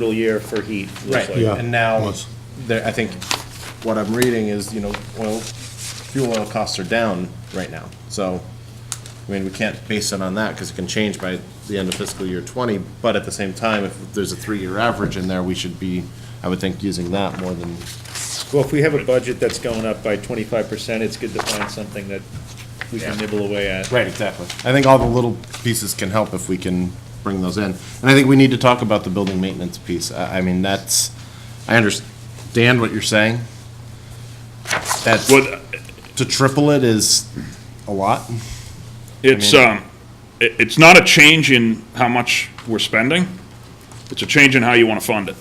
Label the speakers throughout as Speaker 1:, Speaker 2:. Speaker 1: brutal year for heat. looks
Speaker 2: Right,
Speaker 1: like.
Speaker 3: Yeah,
Speaker 2: and now,
Speaker 3: was.
Speaker 2: there, I think what I'm reading is, you know, oil, fuel oil costs are down right now. So, I mean, we can't base it on that because it can change by the end of fiscal year twenty. But at the same time, if there's a three-year average in there, we should be, I would think, using that more than,
Speaker 1: Well, if we have a budget that's going up by twenty-five percent, it's good to find something that we can
Speaker 2: Yeah.
Speaker 1: nibble away at.
Speaker 2: Right, exactly. I think all the little pieces can help if we can bring those in. And I think we need to talk about the building maintenance piece. I, I mean, that's, I understand what you're saying. That's,
Speaker 4: Well,
Speaker 2: to triple it is a lot.
Speaker 4: it's, um, it, it's not a change in how much we're spending, it's a change in how you wanna fund it.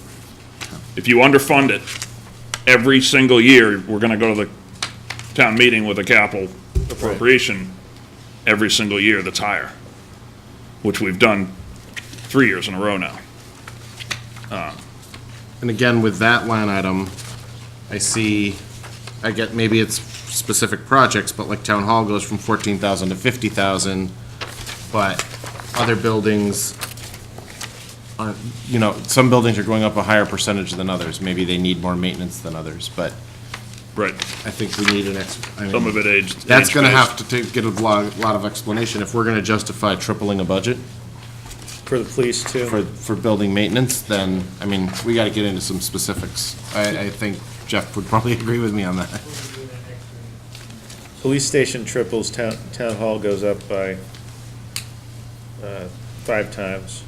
Speaker 4: If you underfund it, every single year, we're gonna go to the town meeting with a capital appropriation every single year that's higher, which we've done three years in a row now.
Speaker 2: And again, with that line item, I see, I get, maybe it's specific projects, but like town hall goes from fourteen thousand to fifty thousand, but other buildings aren't, you know, some buildings are going up a higher percentage than others. Maybe they need more maintenance than others, but
Speaker 4: Right,
Speaker 2: I think we need an ex, I mean.
Speaker 4: some of it aged.
Speaker 2: That's gonna
Speaker 4: age-based.
Speaker 2: have to take, get a lot, lot of explanation if we're gonna justify tripling a budget.
Speaker 1: For the police
Speaker 2: for,
Speaker 1: too.
Speaker 2: for building maintenance, then, I mean, we gotta get into some specifics. I, I think Jeff would probably agree with me on that.
Speaker 1: Police station triples, town, town hall goes up by, uh, five times.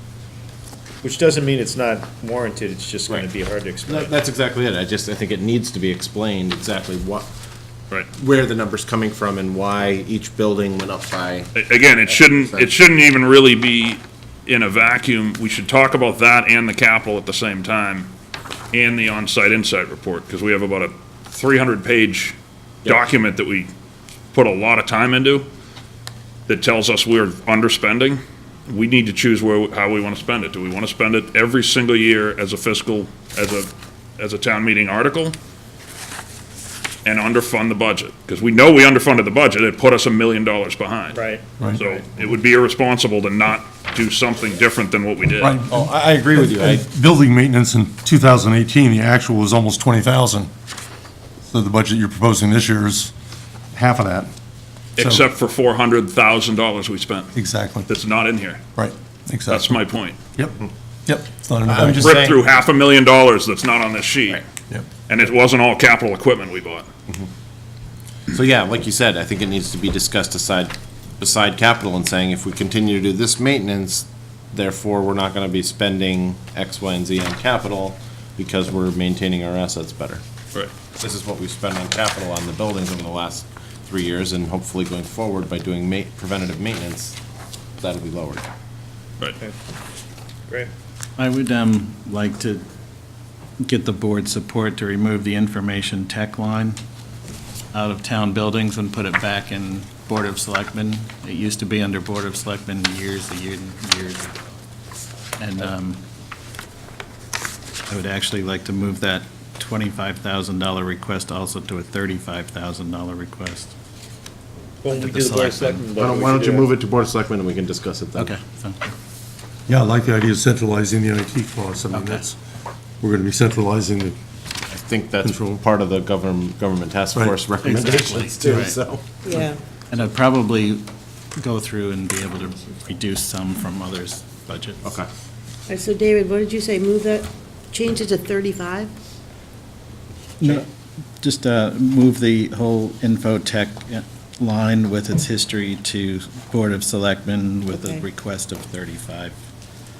Speaker 1: Which doesn't mean it's not warranted, it's just gonna
Speaker 2: Right.
Speaker 1: be hard to explain.
Speaker 2: That- That's exactly it. I just, I think it needs to be explained exactly what,
Speaker 4: Right.
Speaker 2: where the number's coming from and why each building went up by.
Speaker 4: A- Again, it shouldn't, it shouldn't even really be in a vacuum. We should talk about that and the capital at the same time, and the on-site insight report, because we have about a 300-page document that we put a lot of time into that tells us we're underspending. We need to choose where, how we want to spend it. Do we want to spend it every single year as a fiscal, as a, as a town meeting article? And underfund the budget? Because we know we underfunded the budget. It put us a million dollars behind.
Speaker 1: Right.
Speaker 4: So it would be irresponsible to not do something different than what we did.
Speaker 3: Right.
Speaker 2: Oh, I, I agree with you. I,
Speaker 3: And Building maintenance in 2018, the actual was almost 20,000. So the budget you're proposing this year is half of that. So-
Speaker 4: Except for four hundred thousand dollars we spent.
Speaker 3: Exactly,
Speaker 4: That's not in here.
Speaker 3: right,
Speaker 4: That's
Speaker 3: exactly.
Speaker 4: my point.
Speaker 3: Yep, yep. It's not in the
Speaker 2: Mm-hmm. I'm
Speaker 3: budget.
Speaker 2: just
Speaker 4: Ripped through
Speaker 2: saying,
Speaker 4: half a million dollars that's not on this sheet,
Speaker 2: Right.
Speaker 3: Yep.
Speaker 4: and it wasn't all capital equipment we bought.
Speaker 2: so yeah, like you said, I think it needs to be discussed aside, beside capital and saying if we continue to do this maintenance, therefore, we're not gonna be spending X, Y, and Z on capital because we're maintaining our assets better.
Speaker 4: Right.
Speaker 2: this is what we've spent on capital on the buildings over the last three years, and hopefully going forward by doing ma- preventative maintenance, that'll be lowered.
Speaker 4: Right.
Speaker 1: Great.
Speaker 5: I would um, like to get the board's support to remove the information tech line out of town buildings and put it back in Board of Selectmen. It used to be under Board of Selectmen years, a year, years ago. And um, I would actually like to move that $25,000 request also to a $35,000 request.
Speaker 1: When we
Speaker 5: the
Speaker 1: do the board of
Speaker 5: selectmen.
Speaker 1: selectmen
Speaker 2: Why
Speaker 1: vote,
Speaker 2: don't,
Speaker 1: we
Speaker 2: why
Speaker 1: should
Speaker 2: don't you
Speaker 1: do that.
Speaker 2: move it to Board of Selectmen, and we can discuss it then?
Speaker 5: Okay. so-
Speaker 3: Yeah, I like the idea of centralizing the IT costs. I mean,
Speaker 5: Okay.
Speaker 3: that's, we're going to be centralizing the,
Speaker 2: I think that's
Speaker 3: Control.
Speaker 2: part of the government, government task
Speaker 3: Right.
Speaker 2: force recommendations too,
Speaker 5: Right.
Speaker 2: so.
Speaker 6: Yeah,
Speaker 5: And I'd probably go through and be able to reduce some from others' budgets.
Speaker 2: Okay.
Speaker 6: All right, so David, what did you say, move that, change it to 35?
Speaker 5: No, just uh, move the whole info tech uh, line with its history to Board of Selectmen with a
Speaker 6: Okay.
Speaker 5: request of 35,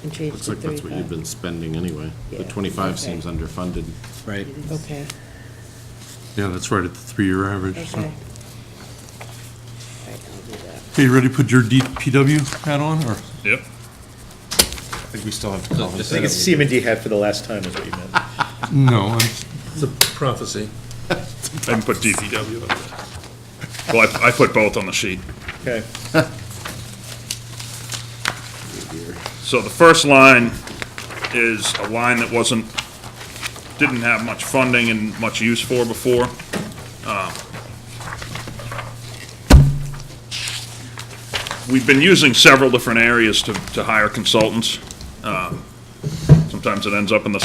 Speaker 6: And change it
Speaker 2: Looks
Speaker 6: to
Speaker 2: like that's what you've
Speaker 6: 35?
Speaker 2: been spending anyway. The
Speaker 6: Yeah,
Speaker 2: twenty-five
Speaker 6: okay.
Speaker 2: seems underfunded.
Speaker 5: right?
Speaker 6: Okay,
Speaker 3: yeah, that's right, at the three-year average. so.
Speaker 6: okay. All right, I'll do that.
Speaker 3: Okay, you ready to put your DPW hat on, or?
Speaker 4: Yep.
Speaker 2: I think we still have to.
Speaker 1: I think it's Seaman D had for the last time is what you meant.
Speaker 3: No. I'm- It's a prophecy.
Speaker 4: I put DPW up there. Well, I, I put both on the sheet.
Speaker 1: Okay.
Speaker 4: So the first line is a line that wasn't, didn't have much funding and much use for before. Uh, We've been using several different areas to, to hire consultants. Uh, Um, Sometimes it ends up in the